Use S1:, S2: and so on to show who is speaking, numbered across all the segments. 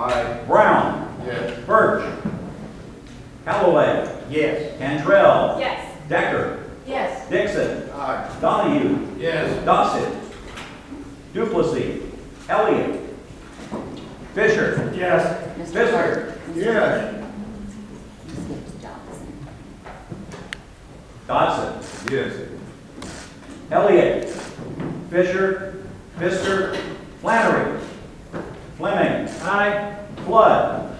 S1: Aye.
S2: Brown.
S1: Yes.
S2: Birch. Callaway.
S1: Yes.
S2: Cantrell.
S3: Yes.
S2: Decker.
S3: Yes.
S2: Dixon.
S1: Aye.
S2: Donahue.
S1: Yes.
S2: Dossett. Duplessy. Elliott. Fisher.
S1: Yes.
S2: Mr. Clark.
S1: Yes.
S3: Johnson.
S2: Dodson.
S1: Yes.
S2: Elliott. Fisher. Pfister. Flannery. Fleming. Aye. Flood.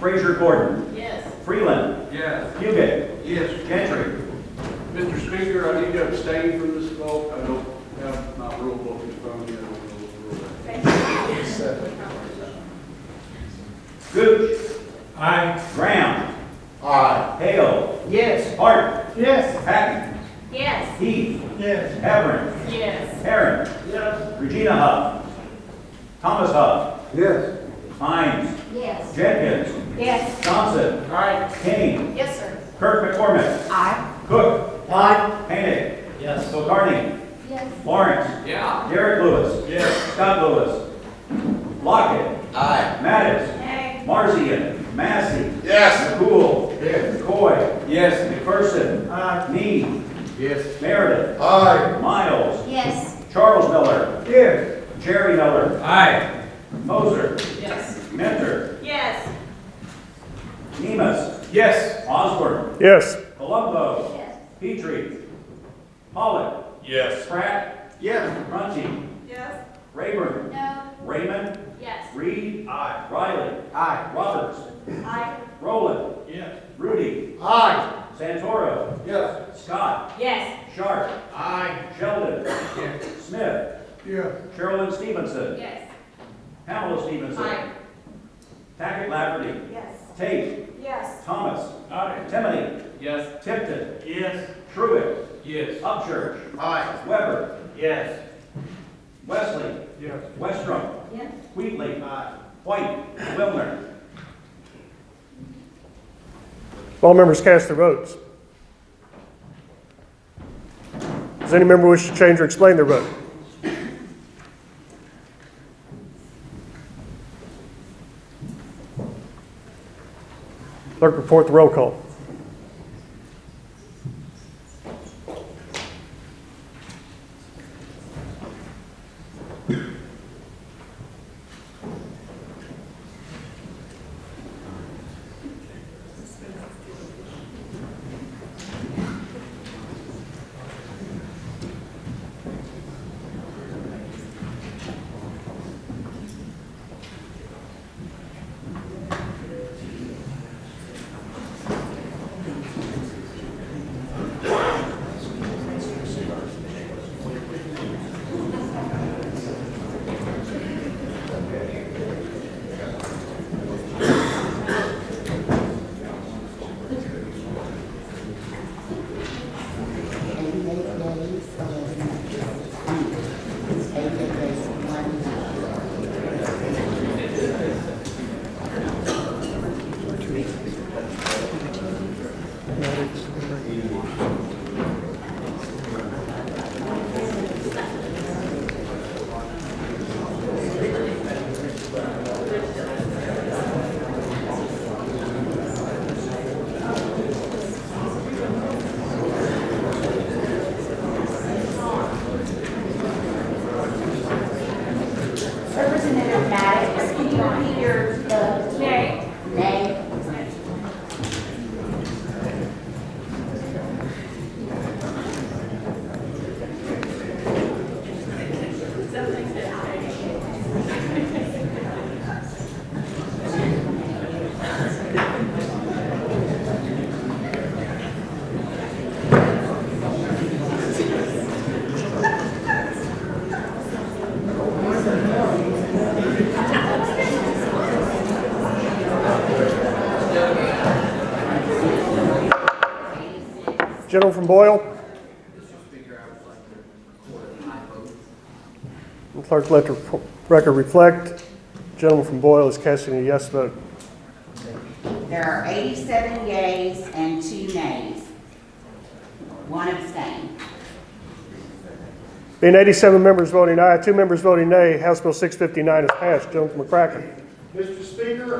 S2: Fraser Gordon.
S3: Yes.
S2: Freeland.
S1: Yes.
S2: Hugick.
S1: Yes.
S2: Gentry.
S1: Mr. Speaker, I need to abstain from this vote. I don't have my rule book in front of me. I don't know the rule.
S2: Gooch. Aye. Graham.
S1: Aye.
S2: Hale.
S1: Yes.
S2: Hart.
S1: Yes.
S2: Patton.
S3: Yes.
S2: Heath.
S1: Yes.
S2: Everin.
S3: Yes.
S2: Herron.
S1: Yes.
S2: Regina Huff. Thomas Huff.
S1: Yes.
S2: Hines.
S3: Yes.
S2: Jenkins.
S3: Yes.
S2: Johnson.
S1: Aye.
S2: Kane.
S3: Yes, sir.
S2: Kirk McCormick.
S3: I.
S2: Cook.
S1: Aye.
S2: Panic.
S1: Yes.
S2: Bocardi.
S3: Yes.
S2: Lawrence.
S1: Yeah.
S2: Derek Lewis.
S1: Yes.
S2: Scott Lewis. Lockett.
S1: Aye.
S2: Mattis.
S3: Nay.
S2: Marzian. Massey.
S1: Yes.
S2: McCool.
S1: Yes.
S2: McCoy.
S1: Yes.
S2: McPherson. Aye.
S1: Yes.
S2: Meredith.
S1: Aye.
S2: Miles.
S3: Yes.
S2: Charles Miller.
S1: Yes.
S2: Jerry Miller.
S1: Aye.
S2: Moser.
S3: Yes.
S2: Mentor.
S3: Yes.
S2: Nemus.
S1: Yes.
S2: Osborne.
S4: Yes.
S2: Colombo.
S3: Yes.
S2: Petrie. Pollock.
S1: Yes.
S2: Pratt.
S1: Yes.
S2: Runcie.
S3: Yes.
S2: Rayburn.
S3: No.
S2: Raymond.
S3: Yes.
S2: Reed. Aye. Riley.
S1: Aye.
S2: Roberts.
S3: I.
S2: Rowland.
S1: Yes.
S2: Rudy.
S1: Aye.
S2: Santoro.
S1: Yes.
S2: Scott.
S3: Yes.
S2: Sharp.
S1: Aye.
S2: Sheldon.
S1: Yes.
S2: Smith.
S1: Yes.
S2: Sherilyn Stevenson.
S3: Yes.
S2: Pamela Stevenson. Tackett Lafferty.
S3: Yes.
S2: Tate.
S3: Yes.
S2: Thomas.
S1: Aye.
S2: Timoney.
S1: Yes.
S2: Tipton.
S1: Yes.
S2: Truitt.
S1: Yes.
S2: Upchurch.
S1: Aye.
S2: Weber.
S1: Yes.
S2: Wesley.
S1: Yes.
S2: Westrum.
S3: Yes.
S2: Wheatley. White. Wilner.
S4: All members cast their votes. Does any member wish to change or explain their vote? Clerk, report the roll call.
S5: Representative Maddox, can you repeat your, the?
S3: Nay.
S5: Nay.
S4: Gentleman from Boyle. And Clerk, let the record reflect. Gentleman from Boyle is casting a yes vote.
S5: There are 87 yays and two nays. One abstain.
S4: Being 87 members voting aye, two members voting nay, House Bill 659 is passed. Gentleman from McCracken,
S1: Mr. Speaker,